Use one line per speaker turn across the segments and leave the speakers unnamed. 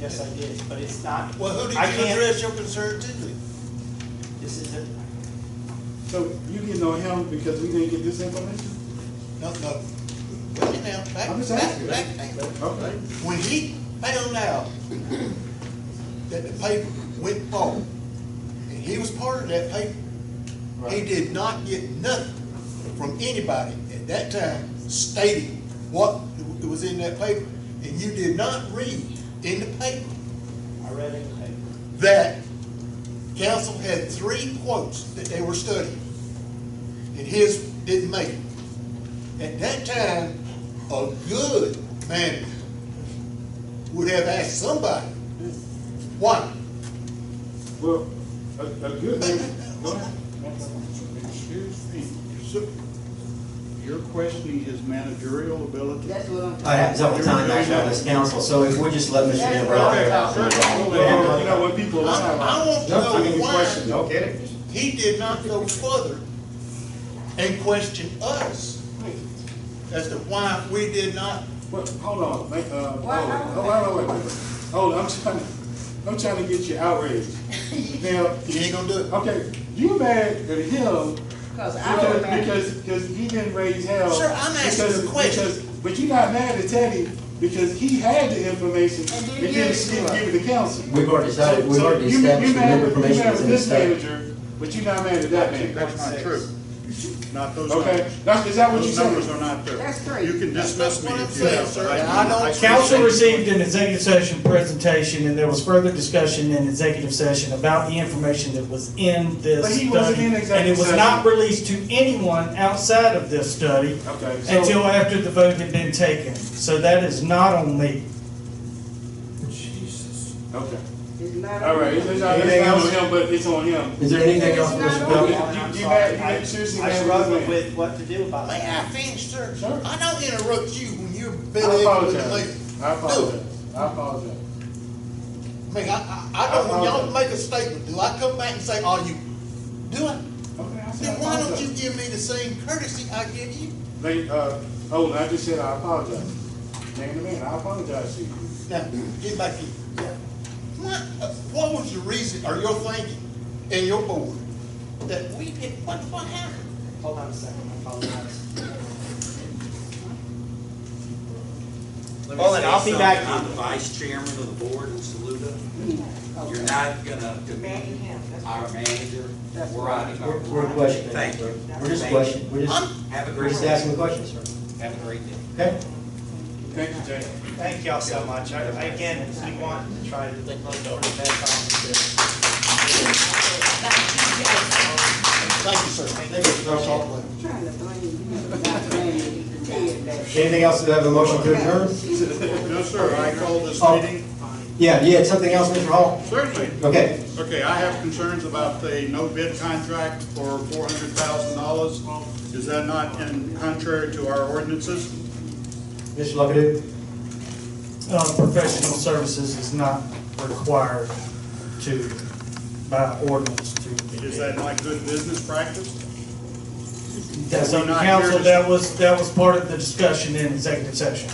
Yes, I did, but it's not.
Well, who did
I
you
can't-
address your concern to?
This is a,
So you getting on him because we didn't get this information?
No, no. Wait now, back,
I'm just
back,
asking.
back, back.
Okay.
When he found out that the paper went forward, and he was part of that paper, he
Right.
did not get nothing from anybody at that time stating what was in that paper. And you did not read in the paper
I read it in the paper.
that council had three quotes that they were studying, and his didn't make it. At that time, a good manager would have asked somebody, why?
Well, a, a good thing. go ahead. Excuse me.
So,
Your questioning his managerial ability?
That's what I'm.
That happens all the time, actually, on this council, so if we just let Mr.
That's
Gambrell
what I'm
out
talking
there.
about.
Well, well, You know, when people lie.
I- I want to
That's
know
a good
why.
question. Okay.
He did not go further and question us as to why we did not.
Well, hold on, make, uh, hold
Why-
on, oh, wait, wait, wait, wait. hold on, I'm trying, to- I'm trying to get you outraged. Now,
He ain't gonna do it.
okay, you mad at him
Cause I
because,
don't remember.
because, because he didn't raise hell.
Sir, I'm asking
because-
a question.
because- But you got mad at Teddy because he had the information
And
and
didn't
didn't
give it
give
to us.
it to council.
We've already decided,
So-
we've
so
already
you- you
established the
mad-
member
you
information
mad
is
at
in the
this
state.
manager, But you not mad at that manager.
That's not true. Not those
Okay,
numbers.
that's, is that what you
Those numbers
said?
are not there.
That's three.
You can dismiss me
That's what I'm
if you
saying,
have.
sir,
but
and I don't-
I can't-
Council received an executive session presentation, and there was further discussion in executive session about the information that was in this
But
study.
he wasn't in
And it
executive
was
session.
not released to anyone outside of this study
Okay, so-
until after the vote had been taken. So that is not on me.
Okay,
It's not.
all right, it's it's not,
Anything
it's not on
else?
him, but it's on him.
Is there anything else,
It's
Mr.
not
You,
on
Bell?
you,
Okay.
you mad, you mad- seriously
I
mad at
struggle
this man?
with what to do about
May
that.
I finish, sir?
Sure.
I don't interrupt you when you're
I
belly aching with the lady.
apologize, I apologize, I apologize.
I mean, I, I, I don't, when y'all make a statement, do I come back and say, oh, you, do I?
Okay, I said I
Then why don't you
apologize.
give me the same courtesy I give you?
They, uh, oh, I just said I apologize. Man to man, I apologize to you.
Now, get back here. What, uh, what was your reason, or your thinking, and your board, that we did, what, what happened?
Hold on a second, I apologize.
Let me
Well, then
say
I'll be
something.
back.
I'm the vice chairman of the board in Saluda. You're not gonna demean
Manning him, that's
our manager.
That's
We're
right.
out of our.
We're we're questioning.
Thank you.
We're just
Thank you.
questioning, we're just,
I'm-
Have a
we're
great
just
day.
asking the question, sir.
Have a great day.
Okay?
Thank you, Jay.
Thank y'all so much. I, I- again, we want to try to look over the best option.
Thank you, sir.
Thank you, Mr. Russell.
I'm Trying to blame you, not blame you, you can tell that.
Anything else that have a motion to adjourn?
No, sir, I call this
Oh.
meeting.
Yeah, yeah, something else, Mr. Hall?
Certainly.
Okay.
Okay, I have concerns about the no bid contract for four hundred thousand dollars. Is that not in contrary to our ordinances?
Mr. Luckett?
Uh, Professional services is not required to, by ordinance to. be
Is that not good business practice?
That's
We're
on the
not here
council.
to-
That was, that was part of the discussion in executive session.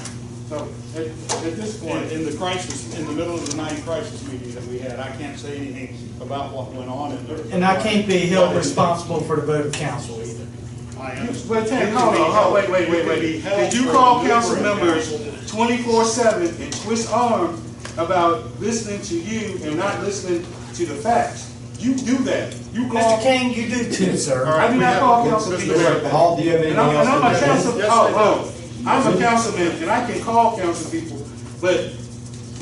So, at, at this
In,
point,
in the crisis, in the middle of the night crisis meeting that we had, I can't say anything about what went on in there.
And I can't be held responsible for the vote of council either.
I
you-
understand.
wait, Ted, hold on, hold, wait, wait, wait, wait. Did you call council members twenty-four seven and twist arm about listening to you and not listening to the facts? You do that. You
Mr.
call.
King, you do too, sir.
I do not call council people.
Mr.
that.
Mayor.
Hall, do you have anything
And I'm,
else?
and I'm a
to
council,
adjourn?
Yes,
oh, oh,
they
I'm a councilman, and I can call council people, but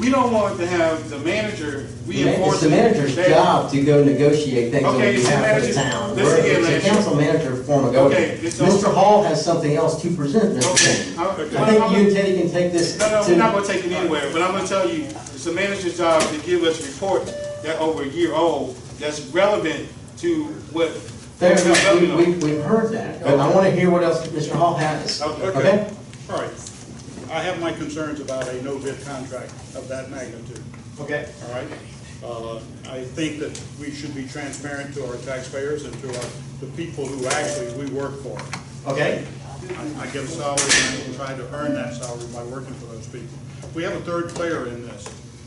we don't want to have the manager
It's the
reinforcing.
manager's
that-
job to go negotiate things on
Okay, it's the
behalf of the
manager's-
town.
listen here,
It's
manager.
a council manager form of government.
Okay, it's on-
Mr. Hall has something else to present, Mr.
Okay,
King.
I-
I
I'm-
think you
I'm-
and Teddy can take this
No, no, we're not gonna
to,
take it anywhere, but I'm gonna tell you, it's the manager's job to give us reports that over a year old, that's relevant to what.
fair
what's
enough,
going
we,
on.
we, we've heard that, but I wanna hear what else Mr. Hall has.
Okay.
Okay?
All right. I have my concerns about a no bid contract of that magnitude,
Okay.
all right? Uh, I think that we should be transparent to our taxpayers and to our, the people who actually we work for.
Okay.
I- I get a salary and I try to earn that salary by working for those people. We have a third player in this.